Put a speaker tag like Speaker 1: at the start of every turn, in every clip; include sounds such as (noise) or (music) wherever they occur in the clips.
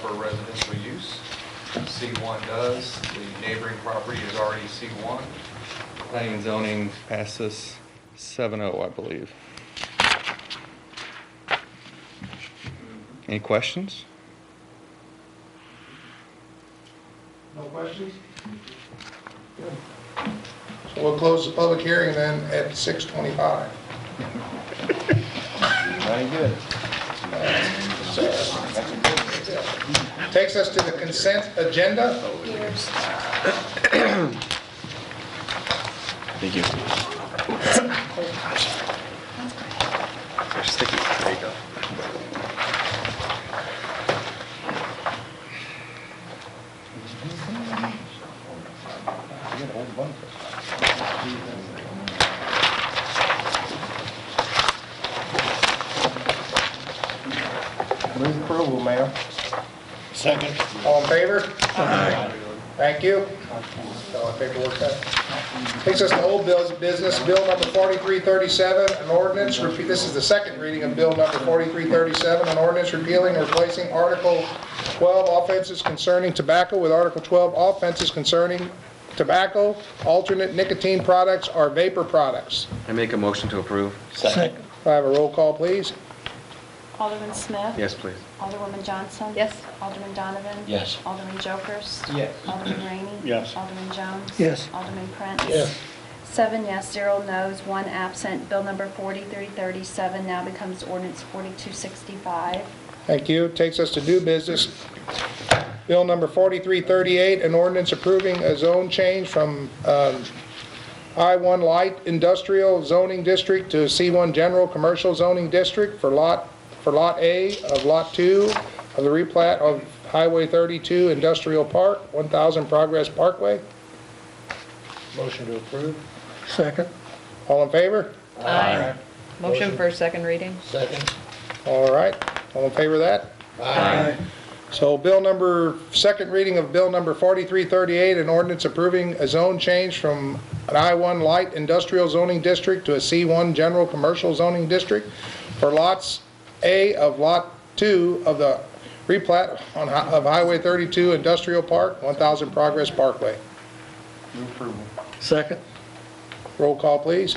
Speaker 1: for residential use. C1 does, the neighboring property is already C1. Planning and zoning passes 7-0, I believe. Any questions?
Speaker 2: No questions? So we'll close the public hearing then at 6:25.
Speaker 1: Very good.
Speaker 2: So, Takes us to the consent agenda.
Speaker 3: Thank you. They're sticky. There you go.
Speaker 2: Move approval, ma'am. Second. All in favor? Thank you. So I think we'll work that. Takes us to old bills, business, bill number 4337, an ordinance, repe- this is the second reading of bill number 4337, an ordinance repealing and replacing Article 12 offenses concerning tobacco with Article 12 offenses concerning tobacco, alternate nicotine products, or vapor products.
Speaker 3: I make a motion to approve?
Speaker 2: If I have a roll call, please.
Speaker 4: Alderman Smith?
Speaker 3: Yes, please.
Speaker 4: Alderwoman Johnson?
Speaker 5: Yes.
Speaker 4: Alderman Donovan?
Speaker 6: Yes.
Speaker 4: Alderman Jokers?
Speaker 6: Yes.
Speaker 4: Alderman Rainey?
Speaker 6: Yes.
Speaker 4: Alderman Jones?
Speaker 6: Yes.
Speaker 4: Alderman Prince?
Speaker 6: Yes.
Speaker 4: Seven yes, zero no's, one absent. Bill number 4337 now becomes ordinance 4265.
Speaker 2: Thank you. Takes us to new business. Bill number 4338, an ordinance approving a zone change from um, I-1 Light Industrial Zoning District to C-1 General Commercial Zoning District for Lot, for Lot A of Lot 2 of the replat of Highway 32 Industrial Park, 1000 Progress Parkway. Motion to approve.
Speaker 6: Second.
Speaker 2: All in favor?
Speaker 5: Aye. Motion for second reading?
Speaker 6: Second.
Speaker 2: All right. All in favor of that?
Speaker 6: Aye.
Speaker 2: So bill number, second reading of bill number 4338, an ordinance approving a zone change from an I-1 light industrial zoning district to a C-1 general commercial zoning district for lots A of Lot 2 of the replat on, hi- of Highway 32 Industrial Park, 1000 Progress Parkway.
Speaker 6: Second.
Speaker 2: Roll call, please.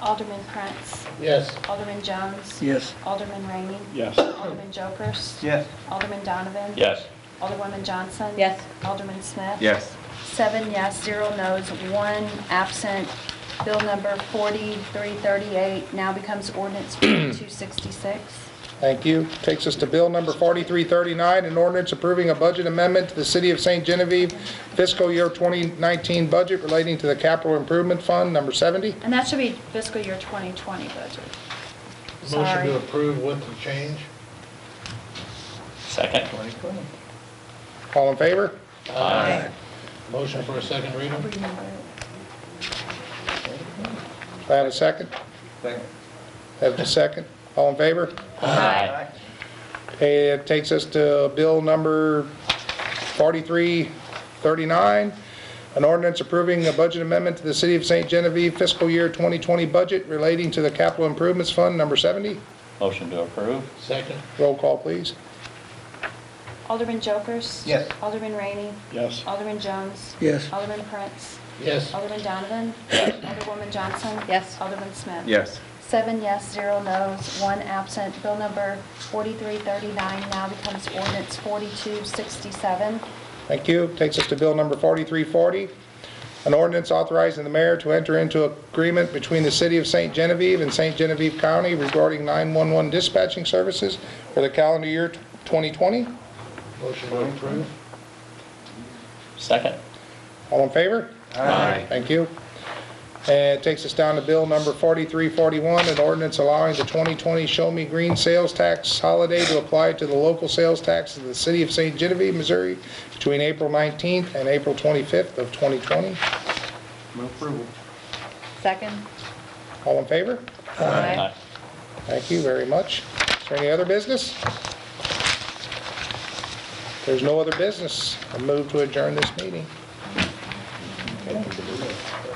Speaker 4: Alderman Prince?
Speaker 6: Yes.
Speaker 4: Alderman Jones?
Speaker 6: Yes.
Speaker 4: Alderman Rainey?
Speaker 6: Yes.
Speaker 4: Alderman Jokers?
Speaker 6: Yes.
Speaker 4: Alderman Donovan?
Speaker 6: Yes.
Speaker 4: Alderwoman Johnson?
Speaker 5: Yes.
Speaker 4: Alderman Smith?
Speaker 3: Yes.
Speaker 4: Seven yes, zero no's, one absent. Bill number 4338 now becomes ordinance 4266.
Speaker 2: Thank you. Takes us to bill number 4339, an ordinance approving a budget amendment to the City of St. Genevieve fiscal year 2019 budget relating to the Capital Improvement Fund, number 70.
Speaker 4: (clears throat) And that should be fiscal year 2020 budget.
Speaker 7: Motion
Speaker 4: Sorry.
Speaker 7: to approve with the change?
Speaker 6: Second.
Speaker 2: All in favor?
Speaker 5: Aye.
Speaker 7: Motion for a second reading?
Speaker 2: Do I have a second? Have a second? All in favor?
Speaker 5: Aye.
Speaker 2: Okay, it takes us to bill number 4339, an ordinance approving a budget amendment to the City of St. Genevieve fiscal year 2020 budget relating to the Capital Improvements Fund, number 70.
Speaker 6: Motion to approve?
Speaker 7: Second?
Speaker 2: Roll call, please.
Speaker 4: Alderman Jokers?
Speaker 6: Yes.
Speaker 4: Alderman Rainey?
Speaker 6: Yes.
Speaker 4: Alderman Jones?
Speaker 6: Yes.
Speaker 4: Alderman Prince?
Speaker 7: Yes.
Speaker 4: Alderman Donovan? Alderwoman Johnson?
Speaker 5: Yes.
Speaker 4: Alderman Smith?
Speaker 3: Yes.
Speaker 4: Seven yes, zero no's, one absent. Bill number 4339 now becomes ordinance 4267.
Speaker 2: Thank you. Takes us to bill number 4340, an ordinance authorizing the mayor to enter into agreement between the City of St. Genevieve and St. Genevieve County regarding 911 dispatching services for the calendar year 2020.
Speaker 7: Motion to approve?
Speaker 6: Second.
Speaker 2: All in favor?
Speaker 3: Aye.
Speaker 2: Thank you. And it takes us down to bill number 4341, an ordinance allowing the 2020 Show Me Green Sales Tax holiday to apply to the local sales tax of the City of St. Genevieve, Missouri between April 19th and April 25th of 2020.
Speaker 5: Second?
Speaker 2: All in favor?
Speaker 5: Aye.
Speaker 2: Thank you very much. Is there any other business? If There's no other business. I move to adjourn this meeting.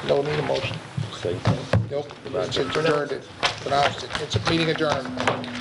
Speaker 2: Don't need a motion. Nope, it's adjourned, It's pronounced it. It's a meeting adjourned.